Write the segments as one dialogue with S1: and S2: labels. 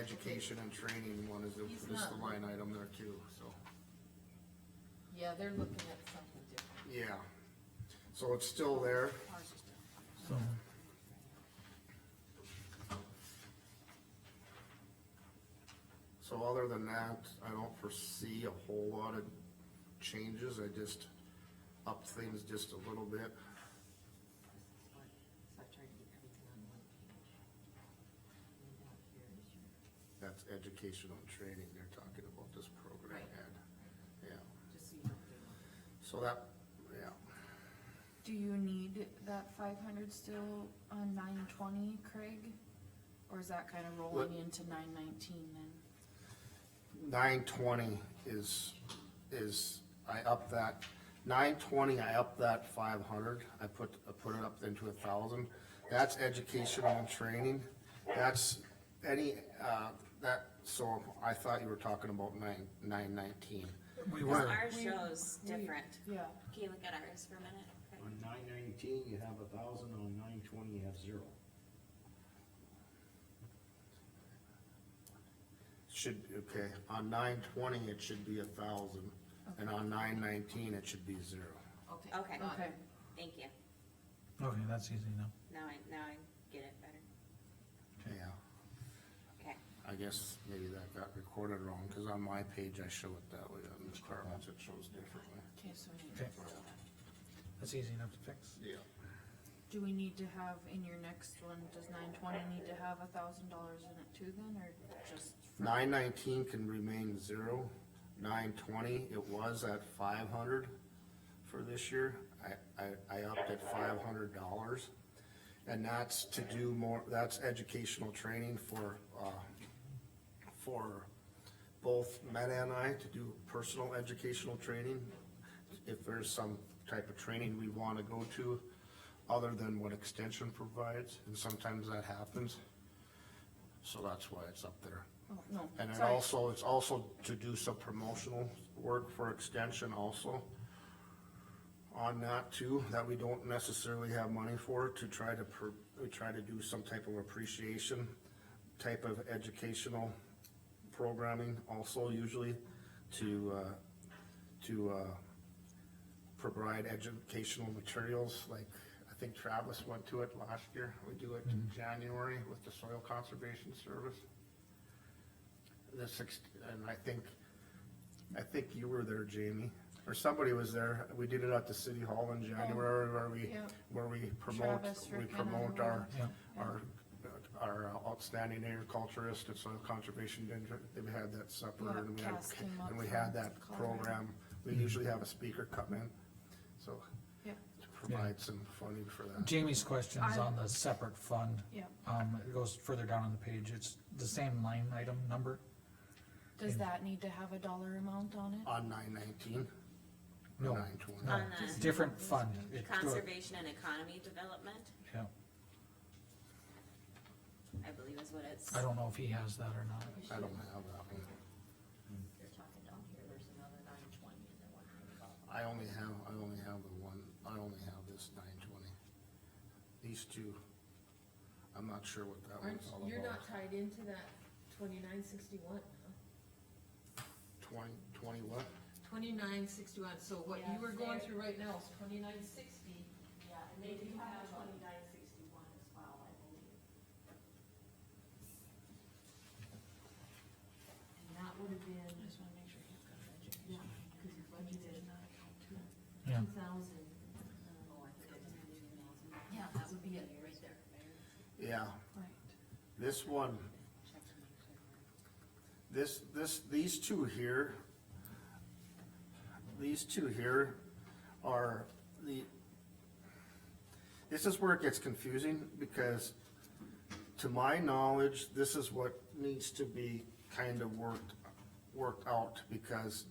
S1: education and training one is, the-
S2: He's
S1: is the
S2: not-
S1: line item there too, so,
S2: Yeah, they're looking at something different.
S1: yeah. So it's still there,
S2: Ours is different.
S3: so.
S1: so other than that, I don't foresee a whole lot of changes, I just upped things just a little bit.
S4: Stop trying to get everything on one page. And down here is your. uh,
S1: That's educational and training, they're talking about this program
S4: Right.
S1: ad, yeah,
S4: Just so you don't get on.
S1: so that, yeah.
S5: Do you need that five hundred still on nine twenty, Craig? Or is that kind of rolling into nine nineteen then?
S1: Nine twenty is, is, I up that, nine twenty, I up that five hundred, I put, I put it up into a thousand. That's educational and training, that's any, uh, that, so I thought you were talking about nine, nine nineteen.
S3: We were,
S6: Ours shows different.
S5: Yeah.
S6: Can you look at ours for a minute?
S7: On nine nineteen, you have a thousand, on nine twenty, you have zero.
S1: Should, okay, on nine twenty, it should be a thousand, and on nine nineteen, it should be zero.
S4: Okay.
S6: Okay,
S4: got
S5: Okay,
S4: it.
S6: thank you.
S3: okay, that's easy now.
S6: Now I, now I get it better.
S1: Yeah,
S6: Okay.
S1: I guess maybe that got recorded wrong, cause on my page I show it that way, on the departments it shows differently.
S5: okay, so we need,
S3: Okay, that's easy enough to fix.
S1: Yeah.
S5: do we need to have in your next one, does nine twenty need to have a thousand dollars in it too then, or just? for-
S1: Nine nineteen can remain zero. Nine twenty, it was at five hundred for this year. I, I, I upped at five hundred dollars. And that's to do more, that's educational training for, uh, for both Meta and I to do personal educational training. If there's some type of training we wanna go to, other than what extension provides, and sometimes that happens. So that's why it's up there.
S5: Oh, no,
S1: And it
S5: sorry.
S1: also, it's also to do some promotional work for extension also. On that too, that we don't necessarily have money for, to try to, pr- we try to do some type of appreciation, type of educational programming also usually to, uh, to, uh, provide educational materials, like, I think Travis went to it last year, we do it in January with the Soil Conservation Service the six, and I think, I think you were there, Jamie, or somebody was there. We did it at the city hall in January where we,
S5: Oh, yeah.
S1: where we promote,
S5: Travis
S1: we
S5: Rick and
S1: promote
S5: I
S1: our,
S5: were-
S3: Yeah.
S1: our, our outstanding agriculturist and soil conservation district. They had that supper
S5: Yeah,
S1: and we had,
S5: Cass came up
S1: and we
S5: from
S1: had that
S5: Colorado.
S1: program.
S3: Mm-hmm.
S1: We usually have a speaker come in, so
S5: Yep,
S1: to provide some funding for that.
S3: Jamie's question is
S5: I-
S3: on the separate fund.
S5: yep.
S3: Um, it goes further down on the page, it's the same line item number,
S5: Does that need to have a dollar amount on it?
S1: On nine nineteen?
S3: No,
S1: Nine twenty?
S3: no,
S6: On uh, the-
S3: different fund. It-
S6: Conservation and economy development,
S3: Yeah,
S6: I believe is what it's.
S3: I don't know if he has that or not.
S1: I don't have that one.
S4: You're talking down here, there's another nine twenty and then one hundred dollars.
S1: I only have, I only have the one, I only have this nine twenty. These two, I'm not sure what that
S4: Aren't,
S1: one's all
S4: you're
S1: about.
S4: not tied into that twenty-nine sixty-one, huh?
S1: Twenty, twenty what?
S4: Twenty-nine sixty-one, so what you
S2: Yeah,
S4: were going
S2: there.
S4: through right now is twenty-nine sixty.
S8: Yeah, and they do have twenty-nine sixty-one as well, I believe.
S4: And that would have been,
S5: I just wanna make sure you've got that. Jamie.
S4: yeah, cause you budgeted
S3: Yeah.
S4: two thousand.
S6: Oh, I think I just had two thousand.
S4: Yeah, that would be it, right there.
S1: Yeah,
S5: Right,
S1: this one,
S6: Check to make sure.
S1: this, this, these two here, these two here are the, this is where it gets confusing, because to my knowledge, this is what needs to be kind of worked, worked out, because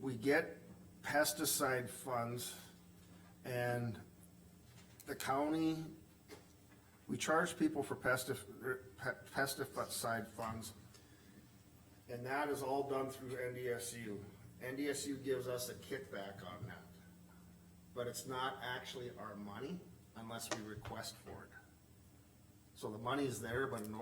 S1: we get pesticide funds, and the county, we charge people for pestif, er, pe- pesticide funds, and that is all done through NDSU. NDSU gives us a kickback on that. But it's not actually our money unless we request for it. So the money's there, but in order